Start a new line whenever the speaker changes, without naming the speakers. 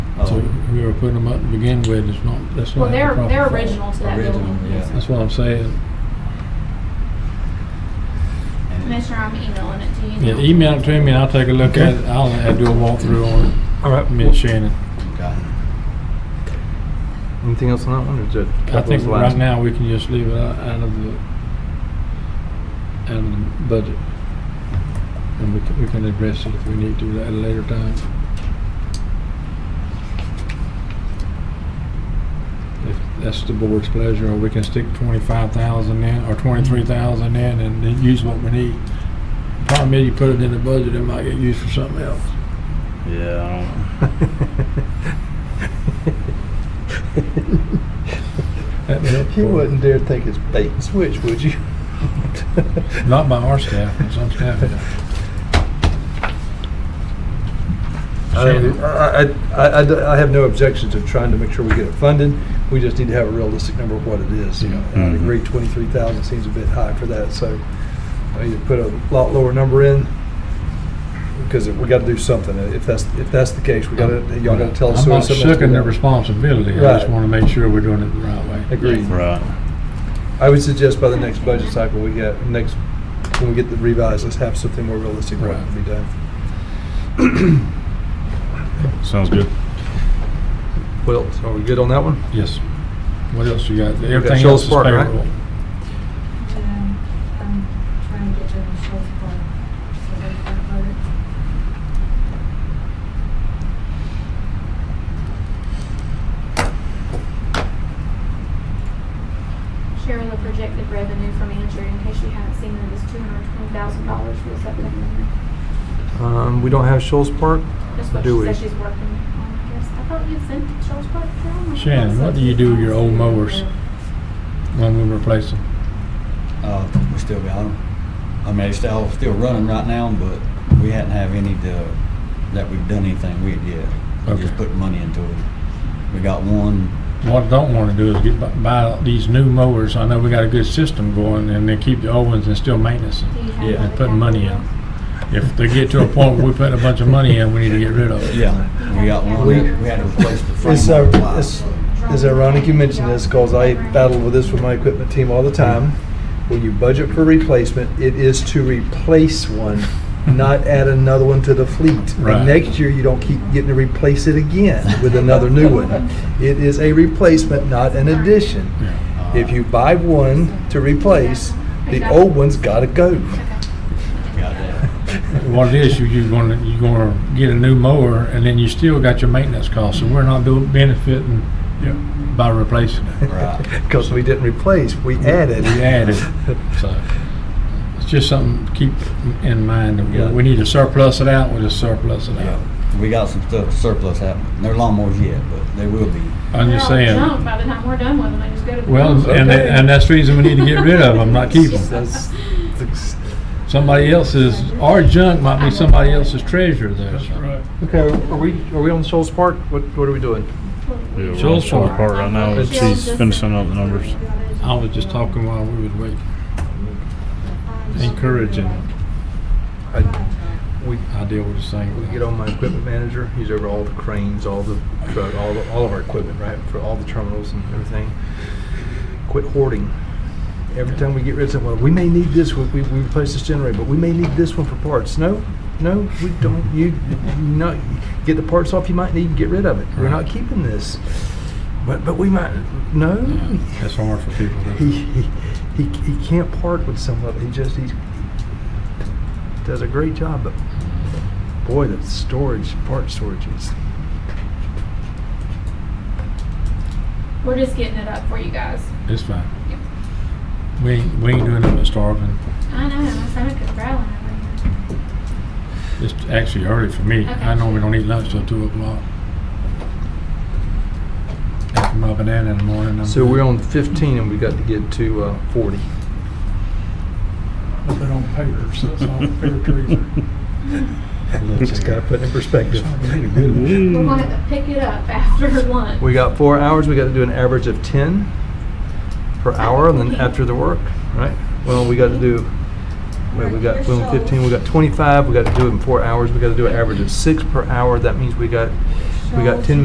So
Um,
Oh.
whoever put them up to begin with is not, that's
Well,
not.
they're,
the proper
they're
fault.
original to that
Original,
building.
yeah.
That's what I'm saying.
and-
Commissioner, I'm emailing it to you.
Yeah,
now.
email it to me and I'll take a look at
Okay.
it. I'll have to do a walkthrough on it.
All right.
Me and Shannon.
Okay.
Anything else on that one, or is it?
I think
that was the
right
last-
now we can just leave it out out of the, out of the budget. And we can, we can address it if we need to at a later time. If that's the board's pleasure, or we can stick twenty-five thousand in, or twenty-three thousand in and then use what we need. Problem is, you put it in the budget, it might get used for something else.
Yeah,
That'd be helpful.
You wouldn't dare think it's bait and switch, would you?
Not by our staff, but some staff. do. Shannon?
I, I- I- I- I have no objections of trying to make sure we get it funded. We just need to have a realistic number of what it is, you know. And I
Mm-hmm.
Mhm.
agree, 23,000 seems a bit high for that, so I either put a lot lower number in, because we got to do something. If that's, if that's the case, we got to, y'all got to tell us.
I'm
so
not
something has to be
sucking the
done.
responsibility, I just
Right.
wanna make sure we're doing it the right way.
Agreed.
I right.
I would suggest by the next budget cycle, we get, next, when we get the revised, let's have something more realistic what can be done.
Sounds good.
What else? Are we good on that one?
Yes. What else you got? Everything else
Shoals
is
Park, right?
payroll.
Um, I'm trying to get to the short part, so they can upload it.
Share the projected revenue from Andrew, in case you haven't seen it, is two hundred and twenty thousand dollars for this upcoming year.
Um, we don't have Shoals Park.
That's what
Do
she
we?
said she's working on, I guess. I thought you sent it to Charles Park. Carolina.
Shannon, what do you do with your old mowers when we replace them?
Uh, we still got them. I mean, it's still, still running right now, but we hadn't have any to, that we've done anything with yet. We
Okay.
Just put money into it. We got one,
What I don't wanna do is get, bu- buy these new mowers, I know we got a good system going, and then keep the old ones and still maintenance them.
Do you have
Yeah.
another
Putting money
capital?
in. If they get to a point where we put a bunch of money in, we need to get rid of it.
yeah, we got one,
We-
that we had to replace the frame.
It's,
on the
uh,
plow,
it's,
so-
it's ironic you mention this, because I battle with this with my equipment team all the time. When you budget for replacement, it is to replace one, not add another one to the fleet.
Right.
And next year, you don't keep getting to replace it again with another new one. It is a replacement, not an addition.
Yeah.
Uh,
If you buy one to replace, the old one's gotta go.
Got that.
What it is, you, you're gonna, you're gonna get a new mower, and then you still got your maintenance costs, so we're not doing, benefiting by replacing it.
Right.
Because we didn't replace, we added.
We added, so, it's just something to keep in mind, that we-
Yeah.
we need to surplus it out, we'll just surplus it out.
Yeah, we got some stuff surplus happening. They're lawnmowers yet, but they will be.
I'm just
They're all
saying,
junk By the time we're done with them, they just go to. the
well,
dumpster.
and, that- and that's the reason we need to get rid of them, not keep them.
That's- that's-
Somebody else's, our junk might be somebody else's treasure there, so.
Okay, are we, are we on Shoals Park? What, what are we doing?
Yeah,
Joel
Joel's on
Shore.
the part right now,
Joel
but she's
just-
finishing up the numbers.
I was just talking while we was waiting, encouraging,
We,
I deal with the same.
we
thing.
get on my equipment manager, he's over all the cranes, all the truck, all, the- all of our equipment, right, for all the terminals and everything. Quit hoarding. Every time we get rid of something, well, we may need this, one. we, we replace this generator, but we may need this one for parts. No, no, we don't, you, no, get the parts off you might need, get rid of it. We're not keeping this. But, but we might, no,
That's hard for people to,
he, he, he, he can't part with some of it. He just he does a great job, but boy, the storage part storage is
We're just getting it up for you guys.
it's fine. We ain't, we ain't doing nothing but starving.
I know, my stomach is growling over here.
It's actually early for me. I
Okay.
normally don't eat lunch till two o'clock. After my banana in the morning, I'm.
So we're on 15, and we got to get to uh, 40.
They don't pay her, so it's all fair treason.
Just got to put it in perspective.
We're gonna have to pick it up after lunch.
We got four hours. We got to do an average of 10 per hour, and then after the work, right? Well, we got to do. Well, we got well, 15. We got 25. We got to do it in four hours. We got to do an average of six per hour. That means we got we got 10